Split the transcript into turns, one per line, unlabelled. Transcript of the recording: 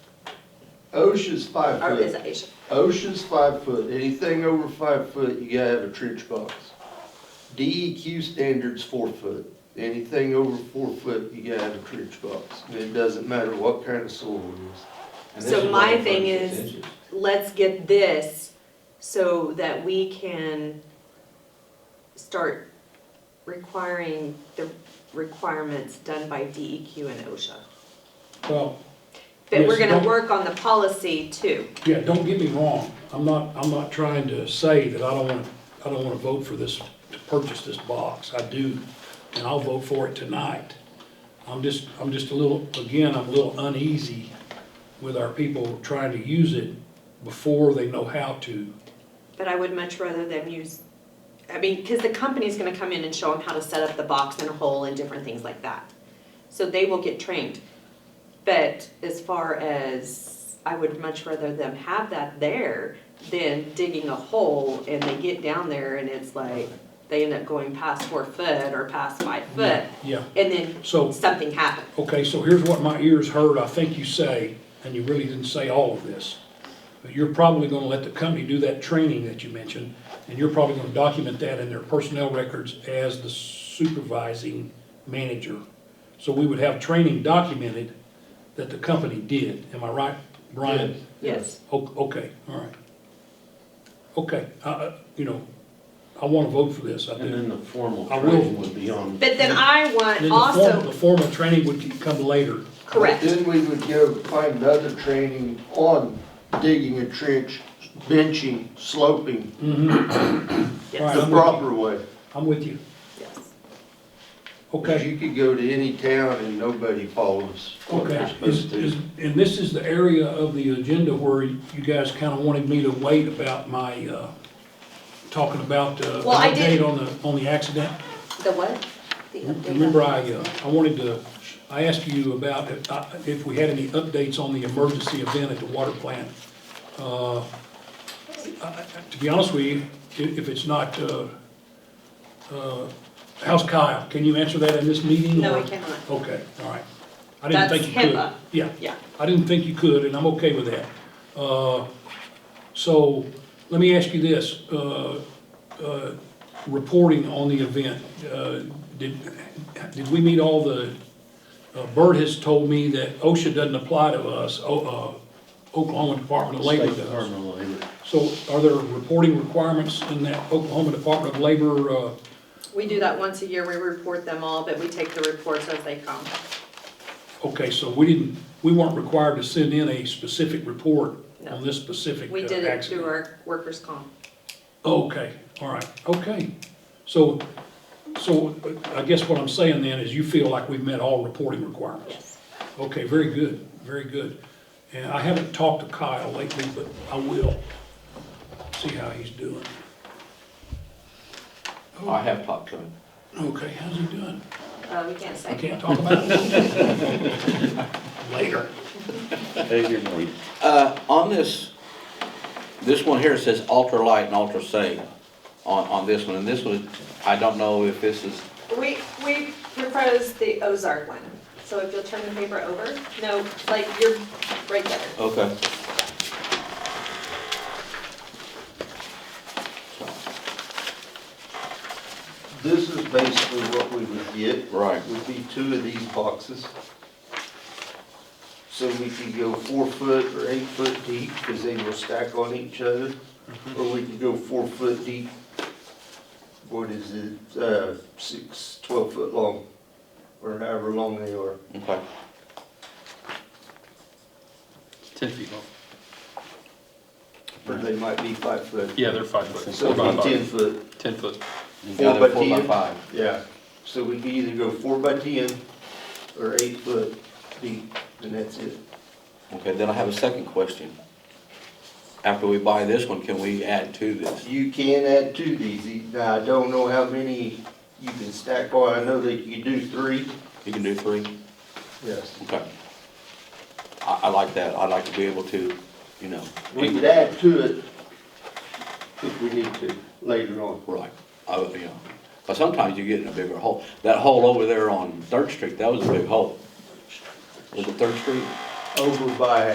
OSHA's five
Or is
foot.
it Asia?
OSHA's five foot. Anything over five foot, you gotta have a trench box. DEQ standard's four foot. Anything over four foot, you gotta have a trench box. And it doesn't matter what kind of soil it is.
And this
So
is
my
only
thing
36
is-
inches.
Let's get this so that we can start requiring the requirements done by DEQ and OSHA.
Well,
But we're
Yes,
gonna
don't-
work on the policy too.
yeah, don't get me wrong, I'm not, I'm not trying to say that I don't wanna, I don't wanna vote for this, to purchase this box, I do, and I'll vote for it tonight. I'm just, I'm just a little, again, I'm a little uneasy with our people trying to use it before they know how to.
But I would much rather them use, I mean, because the company's gonna come in and show them how to set up the box and a hole and different things like that. So they will get trained. But as far as, I would much rather them have that there than digging a hole and they get down there and it's like, they end up going past four foot or past five foot,
Yeah,
and then
so,
something happened.
okay, so here's what my ears heard, I think you say, and you really didn't say all of this. But you're probably gonna let the company do that training that you mentioned, and you're probably gonna document that in their personnel records as the supervising manager. So we would have training documented that the company did, am I right, Brian?
Yes.
O- Okay, all right. Okay, I, I, you know, I wanna vote for this, I
And
do.
then the formal
I will.
training would be on.
But then I
And then
want
the formal, the
also,
formal training would come later.
correct.
Then we would go find another training on digging a trench, benching, sloping,
Right,
the
I'm with you.
proper way.
I'm with you.
Yes.
Because
Okay,
you could go to any town and nobody follows what they're
okay.
supposed
Is,
to.
is, and this is the area of the agenda where you guys kind of wanted me to wait about my, uh, talking about, uh,
Well, I
an
did-
update on the, on the accident.
The what? The update on-
Remember, I, uh, I wanted to, I asked you about if, uh, if we had any updates on the emergency event at the water plant. Uh, I- I- To be honest with you, i- if it's not, uh, uh, how's Kyle? Can you answer that in this meeting?
No, I
or-
cannot.
Okay, all right. I didn't
That's
think you could.
HIPAA.
Yeah.
Yeah.
I didn't think you could, and I'm okay with that. Uh, So, let me ask you this, uh, uh, reporting on the event, uh, did, did we meet all the, uh, Bert has told me that OSHA doesn't apply to us, O- uh, Oklahoma Department of Labor
State
does.
Department of Labor.
So are there reporting requirements in that Oklahoma Department of Labor, uh,
We do that once a year, we report them all, but we take the reports as they come.
Okay, so we didn't, we weren't required to send in a specific report
No.
on this specific uh,
We did
accident?
it through our workers' comp.
Okay, all right, okay. So, so uh, I guess what I'm saying then is you feel like we've met all reporting requirements?
Yes.
Okay, very good, very good. And I haven't talked to Kyle lately, but I will see how he's doing.
I have talked to him.
Okay, how's he doing?
Uh, we can't
I
say.
can't talk about it. Later.
Uh, on this, this one here says ultra light and ultra safe on, on this one, and this one, I don't know if this is,
We, we proposed the Ozark one, so if you'll turn the paper over, no, like, you're right there.
okay.
This is basically what we would get.
Right.
Would be two of these boxes. So we could go four foot or eight foot deep, because they will stack on each other,
Mm-hmm.
or we could go four foot deep. What is it, uh, six, twelve foot long, or however long they are.
Okay.
Ten feet long.
Or they might be five foot.
Yeah, they're five foot.
So
Four by
it'd be ten
five.
foot.
Ten foot.
You
Four
got
by
it, four by
10.
five.
Yeah, so we can either go four by ten or eight foot deep, and that's it.
Okay, then I have a second question. After we buy this one, can we add to this?
You can add two of these, now, I don't know how many you can stack on, I know that you do three.
You can do three?
Yes.
Okay. I, I like that, I'd like to be able to, you know.
We could add to it if we need to later on.
Right, I, would, you know, but sometimes you get in a bigger hole. That hole over there on Third Street, that was a big hole. Was it Third Street?
Over by